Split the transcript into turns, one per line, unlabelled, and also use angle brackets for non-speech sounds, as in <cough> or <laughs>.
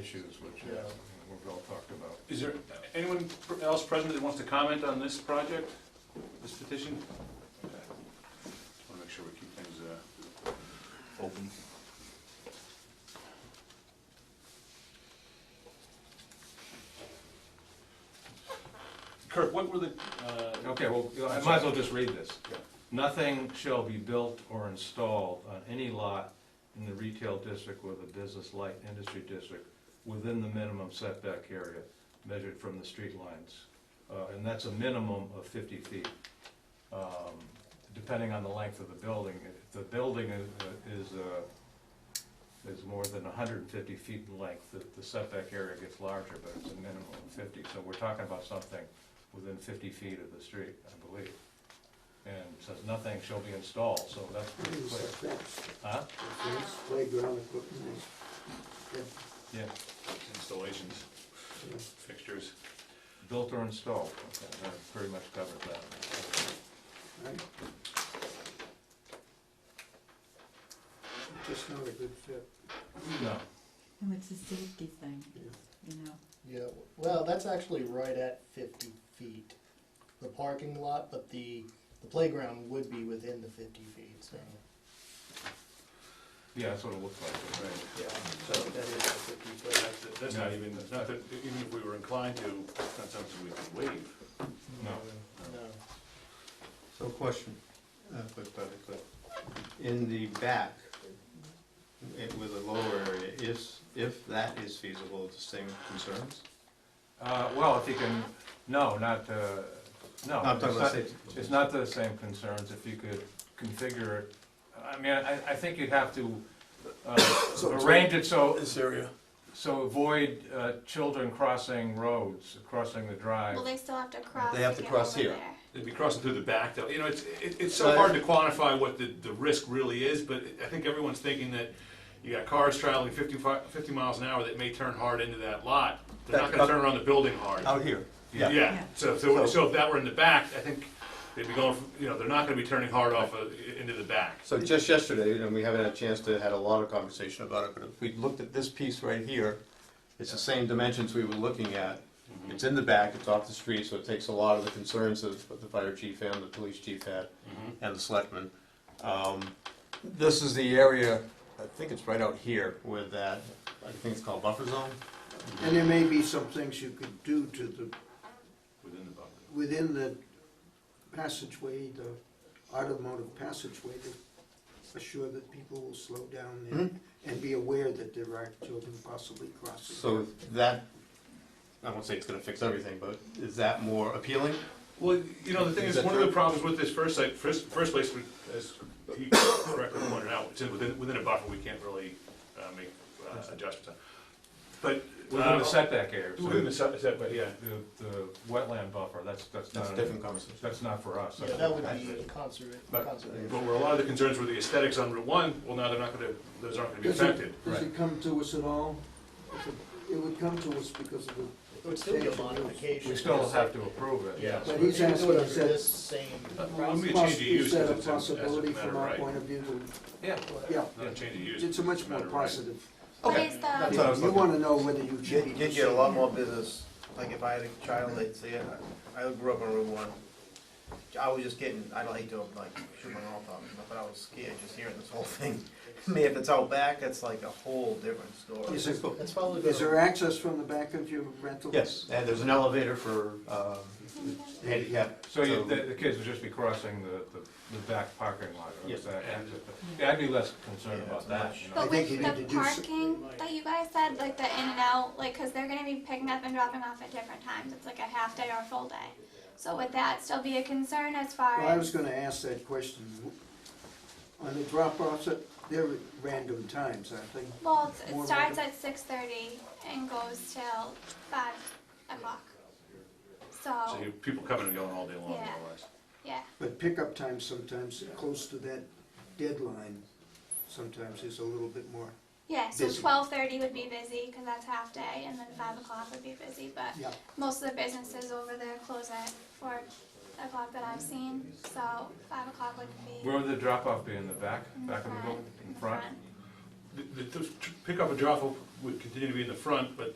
issues, which uh,
Yeah.
we've all talked about.
Is there anyone else present that wants to comment on this project, this petition? Okay. Just want to make sure we keep things uh, open. Kirk, what were the, uh,
Okay, well, I might as well just read this. Nothing shall be built or installed on any lot in the retail district or the business light industry district within the minimum setback area measured from the street lines. Uh, And that's a minimum of fifty feet. Um, Depending on the length of the building, if the building is- is, uh, is more than hundred and fifty feet in length, the- the setback area gets larger, but it's a minimum of fifty. So we're talking about something within fifty feet of the street, I believe. And it says nothing shall be installed, so that's pretty
It's
clear.
like fence,
Huh?
fence, playground equipment, is-
Yeah,
installations, fixtures?
built or installed, okay, that pretty much covers that.
right? Just not a good fit.
No,
No, it's a safety thing,
yeah.
you know.
Yeah, well, that's actually right at fifty feet, the parking lot, but the, the playground would be within the fifty feet, so.
yeah, that's what it looks like.
Right.
Yeah, so that is the fifty foot.
That's that's not even, that's not that- even if we were inclined to, it's not something we could waive.
No.
No.
So question, uh, quick, probably quick. In the back, it- with a lower area, is, if that is feasible, the same concerns?
Uh, well, if you can, no, not, uh, no.
No, I'm
it's
talking
not-
about safety.
It's not the same concerns if you could configure it. I mean, I, I think you'd have to uh, arrange it so,
This area.
so avoid uh, children crossing roads, crossing the drive.
Well, they still have to cross.
They have to
get
cross
over
here.
there.
They'd be crossing through the back, though. You know, it's, it, it's so hard to quantify what the, the risk really is, but I think everyone's thinking that you got cars traveling 55 50 miles an hour that may turn hard into that lot. They're not gonna turn around the building hard.
Out here, yeah.
Yeah, so, if they were- so if that were in the back, I think they'd be going, from- you know, they're not gonna be turning hard off uh, into the back.
So just yesterday, and we haven't had a chance to, had a lot of conversation about it, but if we looked at this piece right here, it's the same dimensions we were looking at. It's in the back, it's off the street, so it takes a lot of the concerns of what the fire chief and the police chief had. and the selectmen. Um, This is the area, I think it's right out here with that, I think it's called buffer zone.
And there may be some things you could do to the,
Within the buffer.
within the passageway, the automotive passageway to assure that people will slow down there and be aware that there are children possibly crossing.
So that, I won't say it's gonna fix everything, but is that more appealing?
Well, you know, the thing
Is
is,
that
one of the
true?
problems with this first site, first, first place, as you correctly pointed out, it's within, within a buffer, we can't really, uh, make, uh, adjustments on. But.
Within
uh,
the setback area. so
Within the set, setback, yeah.
The, the wetland buffer, that's, that's
That's a
not,
different conversation.
that's not for us.
Yeah, that would be conservation, conservation.
But where a lot of the concerns were the aesthetics on Route One, well, now they're not gonna, those aren't gonna be
Does it-
affected.
Does it come to us at all? If it- It would come to us because of the.
It would still be a
change in use.
modification.
We still have to approve it,
Yeah.
yes.
But he's
Even
asking
though
us
they're
that-
this Same
Uh, well, we-
process.
Be a change of use,
Is that a
'cause it's a- as a
possibility
matter
from
of
our
right.
point of view?
Yeah.
Yeah,
Not a change of use.
it's a much
no
more
matter what.
positive.
What
Okay.
is
That's
the,
what I was
You
looking-
wanna know whether you
You
change.
you get a lot more business, like if I had a child, they'd say, I I grew up on Route One. I was just getting, I like to like shoot my mouth off, but I was scared just hearing this whole thing. <laughs> I mean, if it's out back, it's like a whole different story.
Is there,
That's probably
is there
gonna,
access from the back of your rental?
Yes, and there's an elevator for um, handicap.
So you, the, the kids would just be crossing the, the, the back parking lot, or
Yeah.
is that exit? Yeah, I'd be less concerned
Yeah,
about
it's
that,
much.
you know.
I
Mm-hmm. but
think
with
you need
the
to do s-
parking that you guys said, like the in and out, like, cause they're gonna be picking up and dropping off at different times. It's like a half day or a full day. So would that still be a concern as far
Well, I was
as,
gonna ask that question. On the drop-offs, uh, they're at random times, aren't they?
well, it's-
More
it starts
like
at six thirty and goes till five o'clock.
So
So,
you, people coming and going all day long, more
Yeah.
or less.
yeah,
But pickup time sometimes, close to that deadline, sometimes is a little bit more.
yeah, so
Busy.
twelve thirty would be busy, cause that's half day, and then five o'clock would be busy, but
Yeah.
most of the businesses over there close at four o'clock that I've seen, so five o'clock would be
Where would the drop-off be, in the back,
in the
back of the
front,
building, in front?
the, the the pickup and drop off would continue to be in the front, but